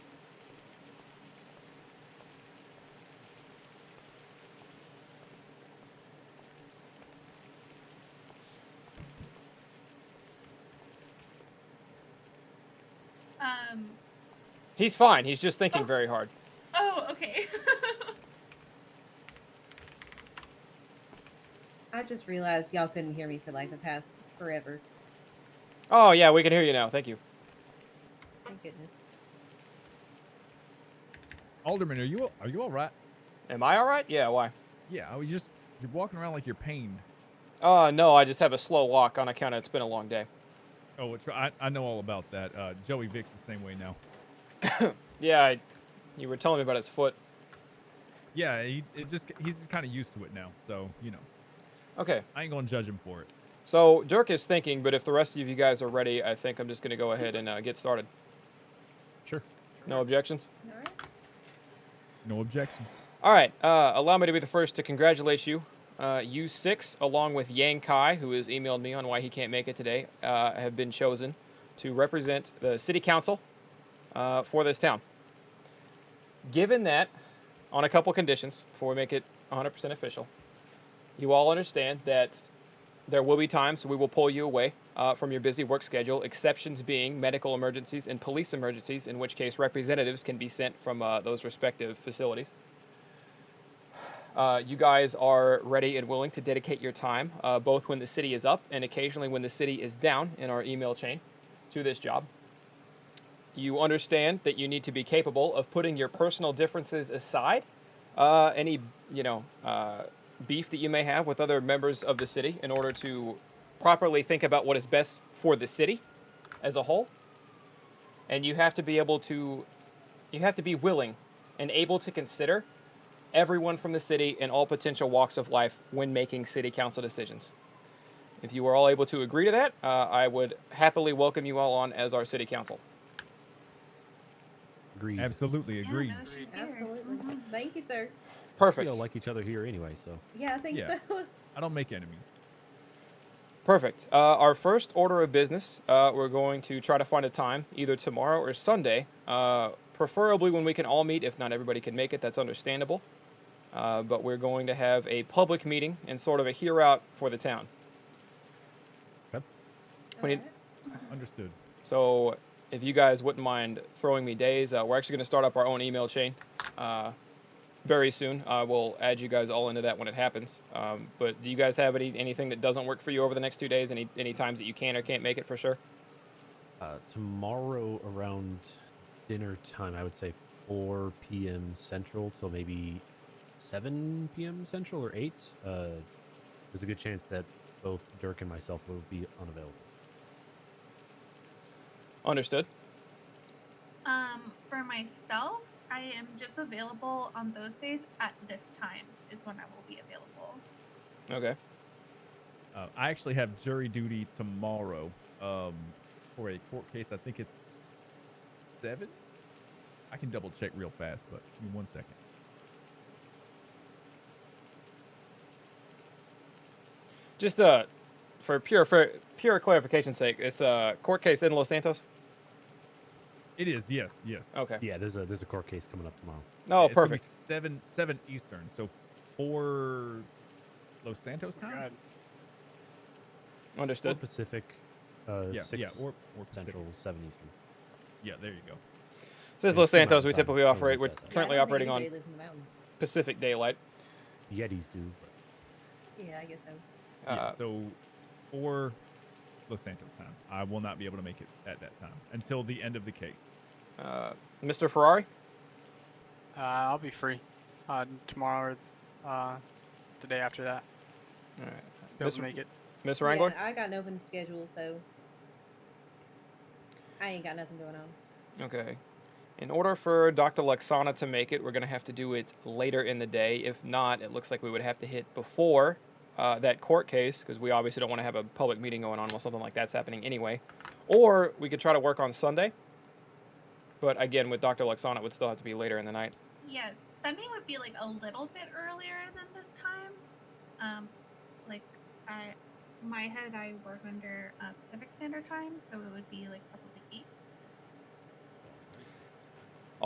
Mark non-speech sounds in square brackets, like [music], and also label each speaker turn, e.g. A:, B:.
A: Um,
B: He's fine. He's just thinking very hard.
A: Oh, okay. [laughs]
C: I just realized y'all couldn't hear me for like the past forever.
B: Oh yeah, we can hear you now. Thank you.
C: Thank goodness.
D: Alderman, are you are you all right?
B: Am I all right? Yeah. Why?
D: Yeah, I was just you're walking around like you're pained.
B: Oh no, I just have a slow walk on account of it's been a long day.
D: Oh, it's, I I know all about that. Uh, Joey Vick's the same way now.
B: Yeah, I, you were telling me about his foot.
D: Yeah, he it just he's just kind of used to it now, so you know
B: Okay.
D: I ain't gonna judge him for it.
B: So Dirk is thinking, but if the rest of you guys are ready, I think I'm just going to go ahead and uh, get started.
D: Sure.
B: No objections.
C: All right.
D: No objections.
B: All right. Uh, allow me to be the first to congratulate you. Uh, you six, along with Yang Kai, who has emailed me on why he can't make it today, uh, have been chosen to represent the city council uh, for this town. Given that, on a couple conditions, before we make it 100% official, you all understand that there will be times we will pull you away uh, from your busy work schedule, exceptions being medical emergencies and police emergencies, in which case representatives can be sent from uh, those respective facilities. Uh, you guys are ready and willing to dedicate your time, uh, both when the city is up and occasionally when the city is down in our email chain, to this job. You understand that you need to be capable of putting your personal differences aside, uh, any you know uh, beef that you may have with other members of the city, in order to properly think about what is best for the city as a whole. And you have to be able to, you have to be willing and able to consider everyone from the city and all potential walks of life when making city council decisions. If you are all able to agree to that, uh, I would happily welcome you all on as our city council.
E: Agreed.
D: Absolutely
A: Yeah,
D: agreed.
A: now she's here. Uh-huh. Mm-hmm.
C: Absolutely. Thank you, sir.
E: We
B: Perfect.
E: all like each other here anyway, so
C: Yeah, I think
D: Yeah.
C: so.
D: I don't make enemies.
B: Perfect. Uh, our first order of business, uh, we're going to try to find a time, either tomorrow or Sunday, uh, preferably when we can all meet. If not everybody can make it, that's understandable. Uh, but we're going to have a public meeting and sort of a hear out for the town. We
C: [laughs]
B: need-
C: Alright.
D: Understood.
B: So, if you guys wouldn't mind throwing me days, uh, we're actually going to start up our own email chain uh, very soon. I will add you guys all into that when it happens. Um, but do you guys have any anything that doesn't work for you over the next two days? Any any times that you can or can't make it for sure?
E: uh, tomorrow around dinner time, I would say 4 p.m. Central till maybe 7 p.m. Central or 8. Uh, there's a good chance that both Dirk and myself will be unavailable.
B: Understood.
A: Um, for myself, I am just available on those days at this time is when I will be available.
B: Okay.
D: Uh, I actually have jury duty tomorrow um, for a court case. I think it's seven. I can double check real fast, but give me one second.
B: Just uh, for pure for pure clarification's sake, it's a court case in Los Santos.
D: It is yes, yes.
B: Okay.
E: Yeah, there's a there's a court case coming up tomorrow.
B: Oh,
D: it's gonna be
B: perfect.
D: Seven seven Eastern, so four Los Santos time.
F: God.
E: Four
B: Understood.
E: Pacific, uh,
D: yeah,
E: six
D: yeah, or, or Pacific.
E: Central, seven Eastern.
D: Yeah, there you go.
B: Since
E: it's
B: Los
E: two mountain
B: Santos, we
E: time.
B: typically
E: Don't
B: operate. We're
D: uh,
E: worry, I said that.
B: currently
C: Yeah, I don't
B: operating
C: think
B: on
C: anybody lives in the mountain.
B: Pacific daylight.
E: Yetis do. But
C: Yeah, I guess so.
B: Uh,
D: yeah, so four Los Santos time. I will not be able to make it at that time until the end of the case.
B: uh, Mr. Ferrari.
F: Uh, I'll be free uh, tomorrow or uh, the day after that.
B: All right.
F: Be able
B: Mr.
F: to make it.
B: Miss
C: Yeah,
B: Wrangler.
C: I got an open schedule, so I ain't got nothing going on.
B: Okay. In order for Dr. Luxana to make it, we're going to have to do it later in the day. If not, it looks like we would have to hit before uh, that court case because we obviously don't want to have a public meeting going on while something like that's happening anyway. Or we could try to work on Sunday. But again, with Dr. Luxana, it would still have to be later in the night.
A: Yes, Sunday would be like a little bit earlier than this time. Um, um, like I, my head, I work under uh, Pacific Standard Time, so it would be like